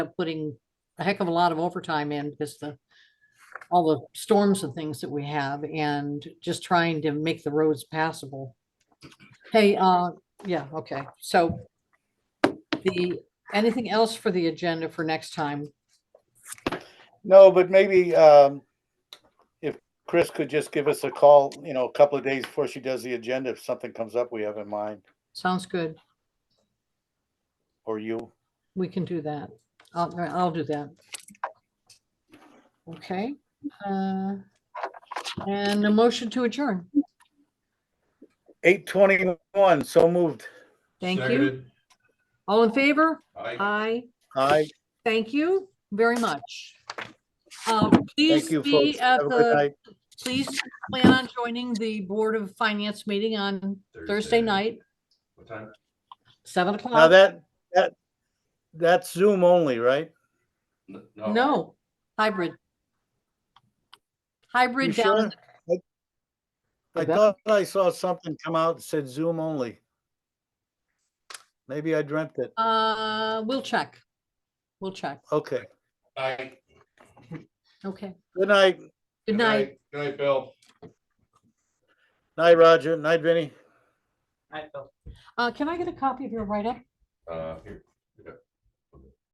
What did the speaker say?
up putting a heck of a lot of overtime in because the, all the storms and things that we have and just trying to make the roads passable. Hey, uh, yeah, okay, so the, anything else for the agenda for next time? No, but maybe um, if Chris could just give us a call, you know, a couple of days before she does the agenda, if something comes up we have in mind, Sounds good. or you. We can do that. I'll, I'll do that. Okay, uh, and a motion to adjourn. Eight twenty-one, so moved. Thank you. Uh, Seconded. All in favor? Aye. Aye. Hi, Thank you very much. Uh, Please thank you, be folks. Have at a good the, night. please plan on joining the Board of Finance meeting on Thursday Thursday. night, What time? 7 Now o'clock. that, that, that's Zoom only, right? N- No, hybrid. You Hybrid sure? down, I I bet. thought I saw something come out that said Zoom only. Maybe I dreamt it. uh, we'll check. We'll check. Okay, Aye. Okay. good night. Good night. Good night, Bill. Night, Roger. Night, Vinnie. Uh, can I get a copy of your write-up? Uh, here.